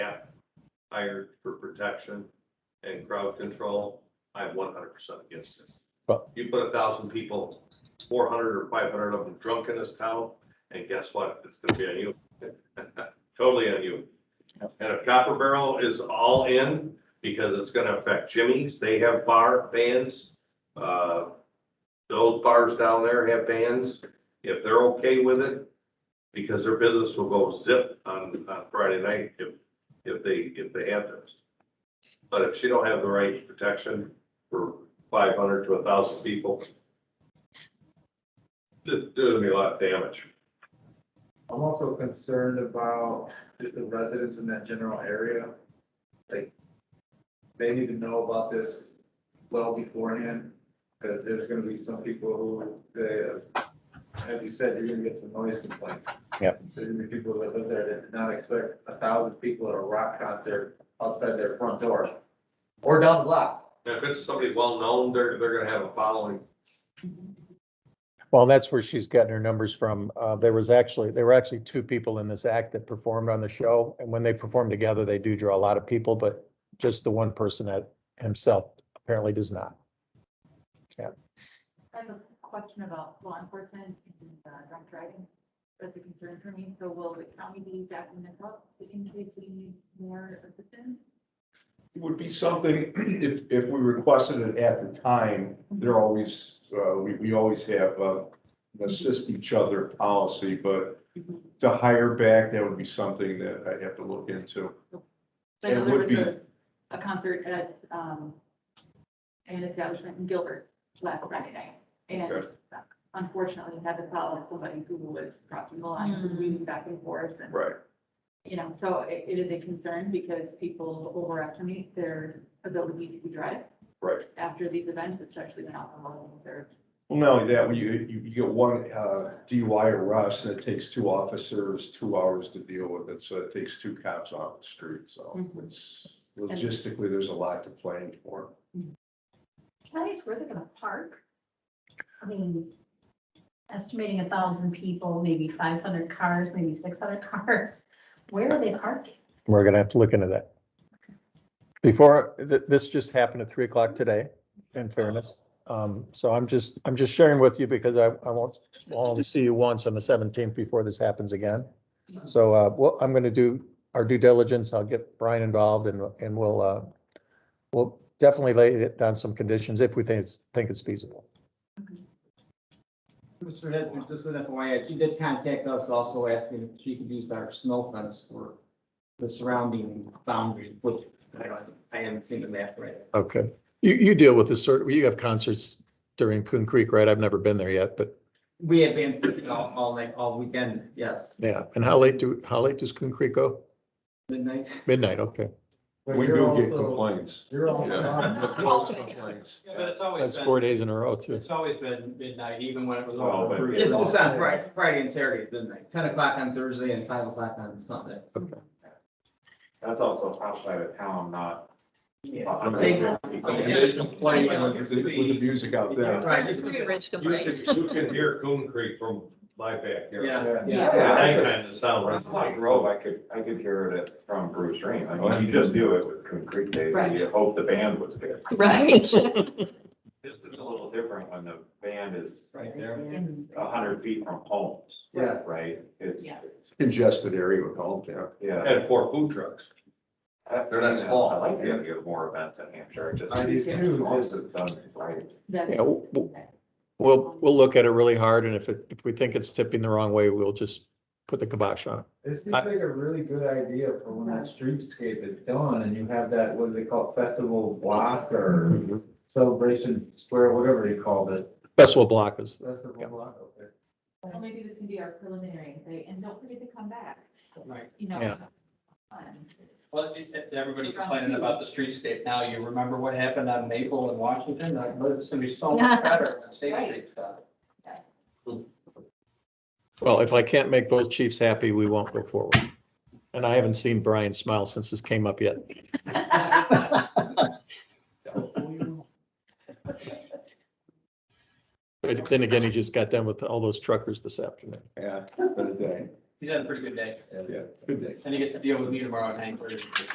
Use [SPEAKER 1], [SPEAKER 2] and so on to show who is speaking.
[SPEAKER 1] hired for protection and crowd control, I'm one hundred percent against it.
[SPEAKER 2] Well-
[SPEAKER 1] You put a thousand people, four hundred or five hundred of them drunk in this town, and guess what? It's gonna be on you. Totally on you.
[SPEAKER 2] Yep.
[SPEAKER 1] And if Copper Barrel is all in, because it's gonna affect Jimmy's, they have bar bands. Uh, those bars down there have bands, if they're okay with it, because their business will go zip on, on Friday night if, if they, if they have those. But if she don't have the right protection for five hundred to a thousand people, it's doing me a lot of damage.
[SPEAKER 3] I'm also concerned about just the residents in that general area. Like, they need to know about this well beforehand, because there's gonna be some people who, they, uh, as you said, you're gonna get some noise complaints.
[SPEAKER 2] Yep.
[SPEAKER 3] There's gonna be people that live there that did not expect a thousand people at a rock concert outside their front door, or down the block.
[SPEAKER 1] Now, If it's somebody well-known, they're, they're gonna have a following.
[SPEAKER 2] Well, that's where she's gotten her numbers from. Uh, there was actually, there were actually two people in this act that performed on the show. And when they perform together, they do draw a lot of people, but just the one person that himself apparently does not.
[SPEAKER 4] I have a question about law enforcement and uh, drunk driving. That's a concern for me. So will the county be backing this up in case we need more assistance?
[SPEAKER 5] would be something, if, if we requested it at the time, they're always, uh, we, we always have, uh, an assist each other policy, but to hire back, that would be something that I'd have to look into.
[SPEAKER 4] I know there
[SPEAKER 5] It would
[SPEAKER 4] was a- A concert at um, an establishment in Gilbert last Friday night. And
[SPEAKER 1] Okay.
[SPEAKER 4] unfortunately, had to follow somebody who was crossing the line, who was weaving back and forth and
[SPEAKER 5] Right.
[SPEAKER 4] you know, so it, it is a concern because people overestimate their ability to drive.
[SPEAKER 5] Right.
[SPEAKER 4] After these events, especially when alcohol is served.
[SPEAKER 5] Well, not only that, when you, you, you get one, uh, DUI arrest, and it takes two officers, two hours to deal with it, so it takes two cops off the street, so
[SPEAKER 4] Mhm.
[SPEAKER 5] it's, logistically, there's a lot to plan for.
[SPEAKER 6] Can I ask where they're gonna park? I mean, estimating a thousand people, maybe five hundred cars, maybe six hundred cars, where are they parking?
[SPEAKER 2] We're gonna have to look into that. Before, th- this just happened at three o'clock today, in fairness. Um, so I'm just, I'm just sharing with you because I, I want, all to see you once on the seventeenth before this happens again. So, uh, what I'm gonna do, our due diligence, I'll get Brian involved and, and we'll, uh, we'll definitely lay it down some conditions if we think it's, think it's feasible.
[SPEAKER 7] Mr. Head, just an FYI, she did contact us also asking if she could use our snow fence for the surrounding boundary, which I don't- I haven't seen the map right.
[SPEAKER 2] Okay. You, you deal with this sort, you have concerts during Coon Creek, right? I've never been there yet, but
[SPEAKER 7] We have been speaking all, all night, all weekend, yes,
[SPEAKER 2] yeah. And how late do, how late does Coon Creek go?
[SPEAKER 7] midnight.
[SPEAKER 2] Midnight, okay.
[SPEAKER 3] But
[SPEAKER 5] We
[SPEAKER 3] you're
[SPEAKER 5] do get
[SPEAKER 3] also-
[SPEAKER 5] complaints.
[SPEAKER 3] You're
[SPEAKER 5] Yeah.
[SPEAKER 3] also.
[SPEAKER 5] Those complaints.
[SPEAKER 8] Yeah, but it's always
[SPEAKER 2] That's four
[SPEAKER 8] been,
[SPEAKER 2] days in a row too.
[SPEAKER 8] it's always been midnight, even when it was
[SPEAKER 5] Oh,
[SPEAKER 8] all
[SPEAKER 5] but-
[SPEAKER 8] approved.
[SPEAKER 7] It's it's on Friday, Friday and Saturday, at midnight, ten o'clock on Thursday and five o'clock on Sunday.
[SPEAKER 3] That's also outside of town, not.
[SPEAKER 7] Yeah.
[SPEAKER 5] They- They complain with the, with the music out there.
[SPEAKER 7] Right.
[SPEAKER 1] You can, you can hear Coon Creek from my backyard.
[SPEAKER 7] Yeah,
[SPEAKER 6] Yeah.
[SPEAKER 1] At
[SPEAKER 7] yeah.
[SPEAKER 1] nighttime, the sound runs like
[SPEAKER 9] Grove, I could, I could hear it from Bruce Rain.
[SPEAKER 3] Oh,
[SPEAKER 9] I mean, you just do it with Concrete Day, and you hope the band was there.
[SPEAKER 6] Right.
[SPEAKER 9] This is a little different when the band is
[SPEAKER 7] Right there.
[SPEAKER 9] a hundred feet from homes.
[SPEAKER 3] Yeah.
[SPEAKER 9] Right? It's,
[SPEAKER 6] Yeah.
[SPEAKER 9] it's-
[SPEAKER 5] Congested area with all that.
[SPEAKER 9] yeah.
[SPEAKER 1] and four food trucks.
[SPEAKER 9] They're
[SPEAKER 1] not small.
[SPEAKER 9] I like the idea of more events in Hampshire, just.
[SPEAKER 3] I do
[SPEAKER 9] these
[SPEAKER 3] too.
[SPEAKER 9] This is done right.
[SPEAKER 2] Yeah, w- w- we'll, we'll look at it really hard and if it, if we think it's tipping the wrong way, we'll just put the kibosh on it.
[SPEAKER 3] It seems like a really good idea for when that streetscape is done and you have that, what do they call it, festival block or
[SPEAKER 1] Mm-hmm.
[SPEAKER 3] celebration square, whatever you called it.
[SPEAKER 2] Festival block is, Yeah.
[SPEAKER 3] Festival block, okay.
[SPEAKER 4] Well, maybe this can be our preliminary, say, and don't forget to come back,
[SPEAKER 7] Right.
[SPEAKER 4] you know.
[SPEAKER 2] Yeah.
[SPEAKER 4] fun.
[SPEAKER 8] Well, it- it- everybody complaining about the streetscape now, you remember what happened on Maple in Washington, I believe it's gonna be so much better when State Street stuff.
[SPEAKER 2] well, if I can't make both chiefs happy, we won't go forward. And I haven't seen Brian smile since this came up yet. But then again, he just got done with all those truckers this afternoon.
[SPEAKER 5] Yeah, good day.
[SPEAKER 8] He's had a pretty good day,
[SPEAKER 5] Yeah, good day.
[SPEAKER 8] and he gets to deal with me tomorrow at Hank